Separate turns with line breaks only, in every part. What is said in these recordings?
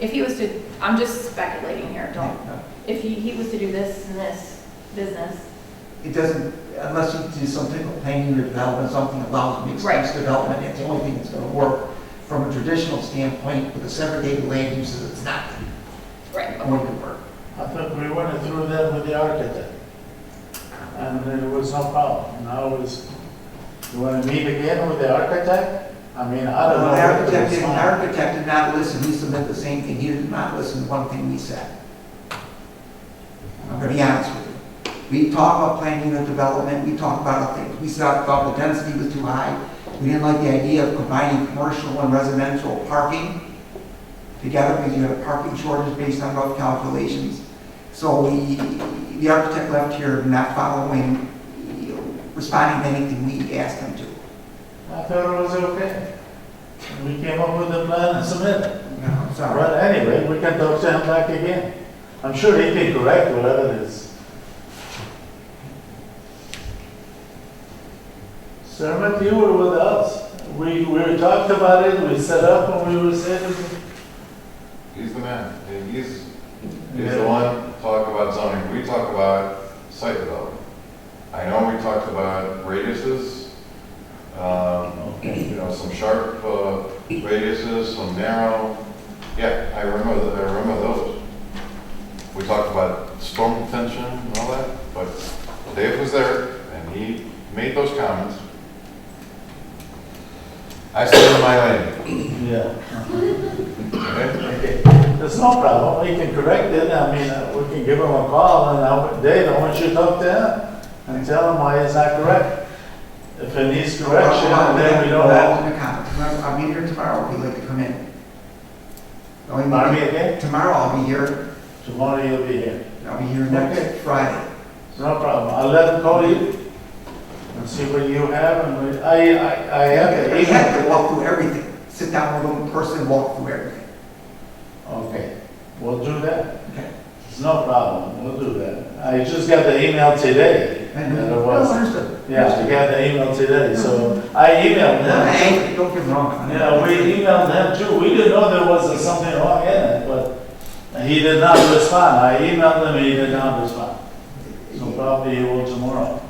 If he was to, I'm just speculating here, don't, if he, he was to do this and this business,
It doesn't, unless you do some type of planning or development, something allows mixed-use
Right.
development, it's the only thing that's gonna work from a traditional standpoint with a segregated land uses, it's not
right,
going to work.
I thought we went through that with the architect, and there was no problem. Now it's, you want to meet again with the architect? I mean, I don't know.
The
what to
architect, did- the
respond.
architect did not listen, he submitted the same thing, he did not listen to one thing we said. I'm gonna be honest with you. We talk about planning and development, we talk about other things, we thought thought the density was too high, we didn't like the idea of combining commercial and residential parking together, because you have parking shortage based on rough calculations. So we, the architect left here not following, you know, responding to anything we asked him to.
I thought it was okay. We came up with the plan and submitted.
You know, I'm sorry.
But anyway, we can talk to him back again. I'm sure he can correct whatever it is. Sermon, you were with us. We, we talked about it, we set up, and we were saying,
He's the man, And he's, he's the one talk about zoning, we talk about site development. I know we talked about radiuses, um, you know, some sharp uh, radiuses, some narrow, yeah, I remember, th- I remember those. We talked about storm tension and all that, but Dave was there, and he made those comments. I stood in my lane,
yeah.
okay?
Okay, There's no problem, we can correct it, I mean, uh, we can give him a call, and I would- Dave, I want you to talk to him, and tell him why it's not correct. If it needs correction, then we don't have,
Hold on, comment. I'll be here tomorrow if you'd like to come in. The only
Pardon me
meeting-
again,
Tomorrow I'll be here,
tomorrow you'll be here,
I'll be here next
Okay.
Friday.
no problem, I'll let him call you, and see what you have, and we- I, I, I have the
We have to
email.
walk through everything, sit down with one person, walk through everything.
Okay, we'll do that,
Okay.
it's no problem, we'll do that, I just got the email today,
And,
that
uh,
it
no,
was,
understood.
yeah, I got the email today, so I emailed him.
Hey, don't get me wrong.
Yeah, we emailed them too, we didn't know there was something wrong in it, but he did not respond, I emailed him, he did not respond. So probably he will tomorrow.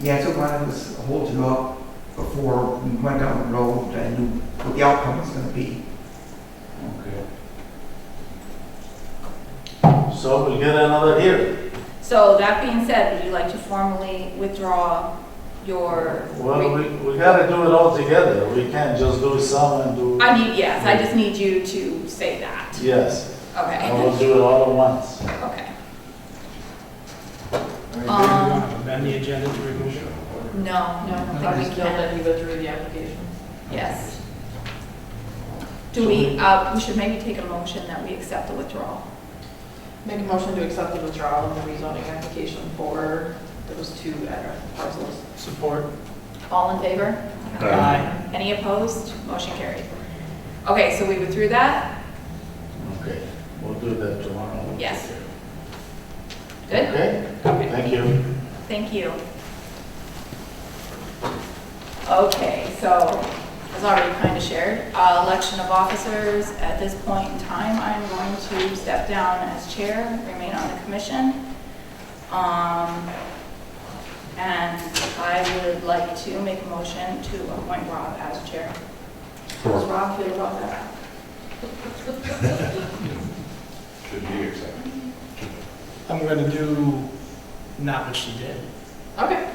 Yeah, so why don't we hold you up before we went down the road and knew what the outcome was gonna be.
Okay. So we'll get another hearing.
So that being said, would you like to formally withdraw your?
Well, we, we gotta do it all together, we can't just do some and do,
I need, yes, I just need you to say that.
yes, I
Okay,
will do it all at once.
okay.
I mean,
Um,
amend the agenda to remove it.
No, no, I don't think we
Just know
can.
that he withdrew the application.
Yes. Do we, uh, we should maybe take a motion that we accept the withdrawal.
Make a motion to accept the withdrawal of the rezoning application for those two address parcels.
Support.
All in favor?
Aye.
Any opposed? Motion carried. Okay, so we withdrew that?
Okay, we'll do that tomorrow.
Yes. Good?
Okay, thank you.
Thank you. Okay, so as already kind of shared, uh, election of officers. At this point in time, I'm going to step down as chair, remain on the commission. Um, And I would like to make a motion to appoint Rob as chair. Does Rob feel about that?
Should be accepted.
I'm gonna do not what she did.
Okay.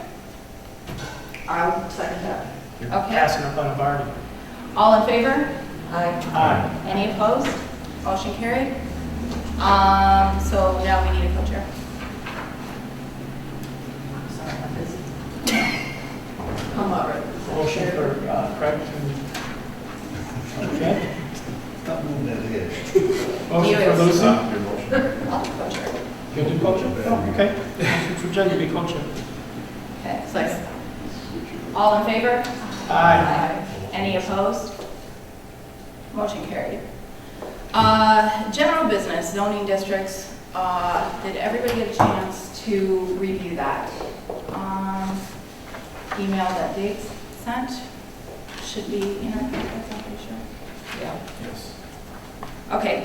I'll second that.
You're
Okay.
passing up on a bargain.
All in favor?
Aye.
Aye.
Any opposed? Motion carried. Um, so now we need a co-chair.
Sorry, I'm busy. I'm all right.
Motion for uh, Craig to... Okay? Motion for Lucy.
Not your motion.
I'll be Oh, co-chair.
You do culture? Oh, okay. Motion For Jen to be culture.
Okay, second. All in favor?
Aye.
Any opposed? Motion carried. Uh, general business zoning districts, uh, did everybody get a chance to review that? Um, email that Dave sent should be in our packets, I'm pretty sure.
Yeah.
Yes.
Okay,